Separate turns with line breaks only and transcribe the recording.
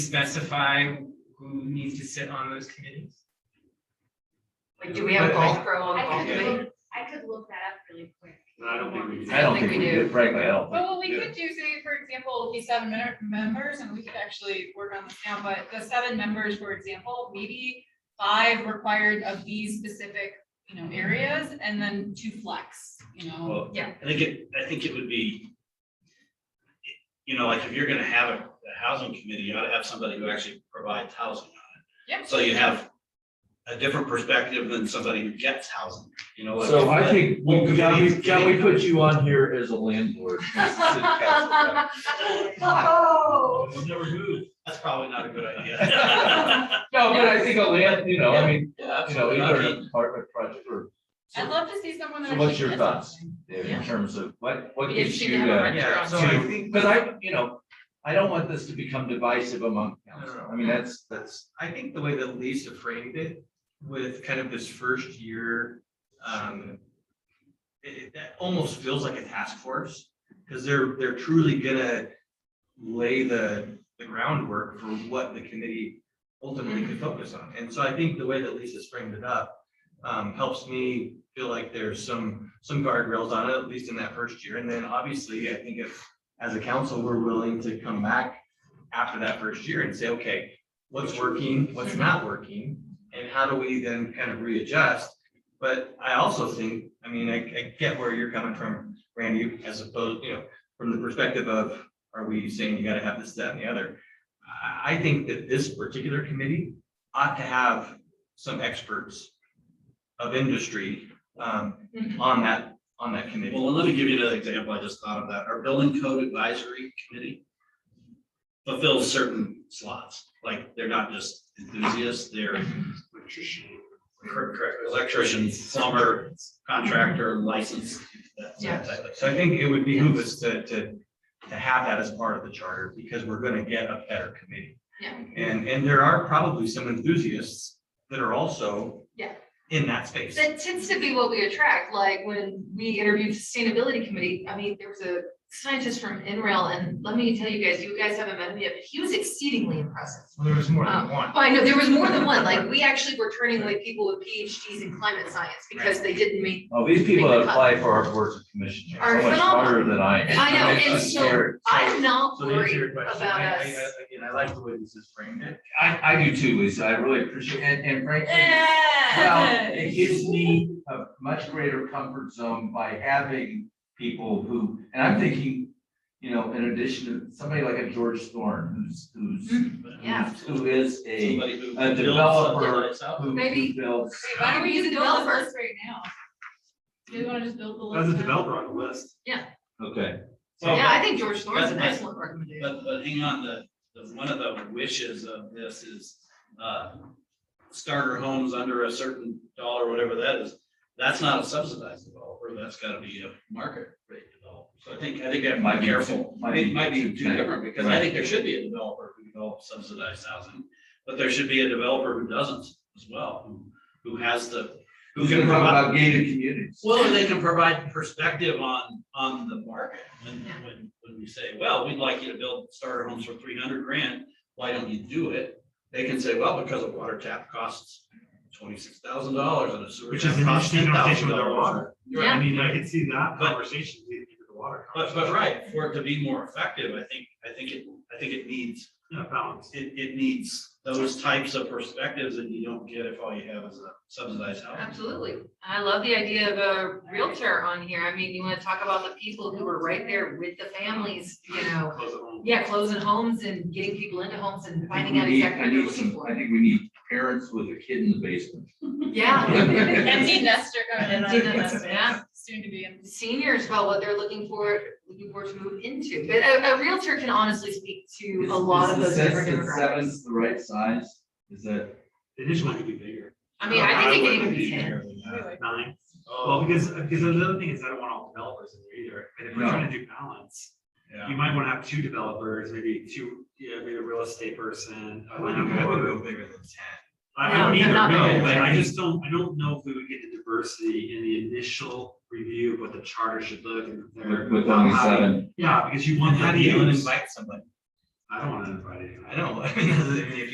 specify who needs to sit on those committees?
Like, do we have a golf pro on the
I
golf
could
committee?
look, I could look that up really quick.
No, I don't think we do.
I don't think we do, frankly, I don't think.
Well, what we could do, say, for example, the seven men- members, and we could actually work on this now, but the seven members, for example, maybe five required of these specific, you know, areas, and then two flex, you know.
Well,
Yeah.
I think it, I think it would be, you know, like if you're gonna have a, a housing committee, you ought to have somebody who actually provides housing on
Yep.
it. So you have a different perspective than somebody who gets housing, you know? like-
So I think,
Well,
we- can we,
committees-
can we put you on here as a landlord? as a city council rep?
Oh.
We'll never move. That's probably not a good idea.
No, but I think a land, you know, I mean, you know,
I
either an
mean,
apartment project or.
I'd love to see someone that.
So what's
actually
your
does
thoughts?
something.
In terms of what, what
It'd be
gets
interesting to have
you,
a
uh,
rent-
Yeah, so I
to,
think,
because I, you know, I don't want this to become divisive among council. I mean, that's, that's.
I think the way that Lisa framed it with kind of this first year, um, it, it- that almost feels like a task force, because they're, they're truly gonna lay the, the groundwork for what the committee ultimately could focus on. And so I think the way that Lisa's framed it up, um, helps me feel like there's some, some guardrails on it, at least in that first year. And then obviously, I think if, as a council, we're willing to come back after that first year and say, okay, what's working, what's not working? And how do we then kind of readjust? But I also think, I mean, I, I get where you're coming from, Randy, as opposed, you know, from the perspective of, are we saying you gotta have this, that, and the other? I, I think that this particular committee ought to have some experts of industry, um,
Mm-hmm.
on that, on that committee.
Well, let me give you another example. I just thought of that. Our building code advisory committee fulfills certain slots, like they're not just enthusiasts, they're Correct, correct. Electrician, plumber, contractor, licensed. that- that
Yeah.
type of
So I
thing.
think it would behoove us to, to, to have that as part of the charter, because we're gonna get a better committee.
Yeah.
And, and there are probably some enthusiasts that are also.
Yeah.
In that space.
That tends to be what we attract, like when we interviewed sustainability committee, I mean, there was a scientist from NREL, and let me tell you guys, you guys haven't met him yet, but he was exceedingly impressive.
Well, There was more
Um,
than one.
Oh, I know, there was more than one, like, we actually were turning away people with PhDs in climate science because they didn't meet
Oh, these people that
Make the cut.
apply for our boards of commissions
Are
are so much
phenomenal.
smarter than I am.
I know,
It's
and so-
scary.
I'm not
So to answer your
worried
question,
about
I, I,
us.
I- again, I like the way this is framed it.
I, I do too, Lisa. I really appreciate, and, and frankly, Well, it gives me a much greater comfort zone by having people who, and I'm thinking, you know, in addition to somebody like a George Thorne, who's, who's,
Mm-hmm. yeah.
who is a,
Somebody who
a
builds
developer
subdivides out.
who- who
Maybe-
builds.
Wait, why don't we
Use
just
a
build
developer.
this list right now? Do we wanna just build the list?
As a
now?
developer on the list.
Okay.
So-
Yeah, I think George Thorne's an
But- but-
excellent recommendation.
But, but hang on, the, the, one of the wishes of this is, uh, starter homes under a certain dollar, whatever that is. That's not a subsidized developer, that's gotta be a market rate developer. So I think, I think I have to
Might
be
be-
careful.
might
It
be
might be
too
too
tight.
different, because I
Right.
think there should be a developer who develops subsidized housing, but there should be a developer who doesn't as well, who, who has the, who
Who's
can
gonna talk
provide.
about gated communities?
Well, they can provide perspective on, on the market, when,
Yeah.
when, when we say, well, we'd like you to build starter homes for three hundred grand, why don't you do it? They can say, well, because a water tap costs twenty-six thousand dollars and a sewer
Which
tap
is an
costs ten
interesting
thousand
conversation with our
dollars.
water.
Yeah.
I mean, I could see that
But-
conversation leading to the water.
But, but right, for it to be more effective, I think, I think it, I think it needs,
Yeah, balance.
it, it needs those types of perspectives that you don't get if all you have is a subsidized house.
Absolutely. I love the idea of a Realtor on here. I mean, you want to talk about the people who were right there with the families, you know?
Close it home.
Yeah, closing homes and getting people into homes and
I
finding
think we
out
need-
exactly
I
what they're
need
looking
some- I
for.
think we need parents with a kid in the basement.
Yeah.
Empty nester coming in. on
Empty
this,
nester, yeah.
Soon to be. empty.
Seniors about what they're looking for, looking for to move into. But a, a Realtor can honestly speak to a lot of
Is-
those
is the
different
sense that
demographics.
Seven's the right size, is that?
The initial one could be bigger,
I mean, I think it
I
can even
wouldn't
be
be
ten.
Anyway.
nine. Well,
Oh,
because, because the other thing is I don't want all developers in there either. And if we're
No.
trying to do balance,
yeah.
you might want to have two developers, maybe two, yeah, maybe a real estate person. a landlord.
bigger than ten.
I
No,
don't either,
not
no,
bigger.
but I just don't, I don't know if we would get the diversity in the initial review of what the
Mm-hmm.
charter should look and. if they're
With with only
not happy.
seven.
Yeah, because you want that.
How do you
use.
invite somebody?
I don't wanna invite anyone.
I know, I mean, if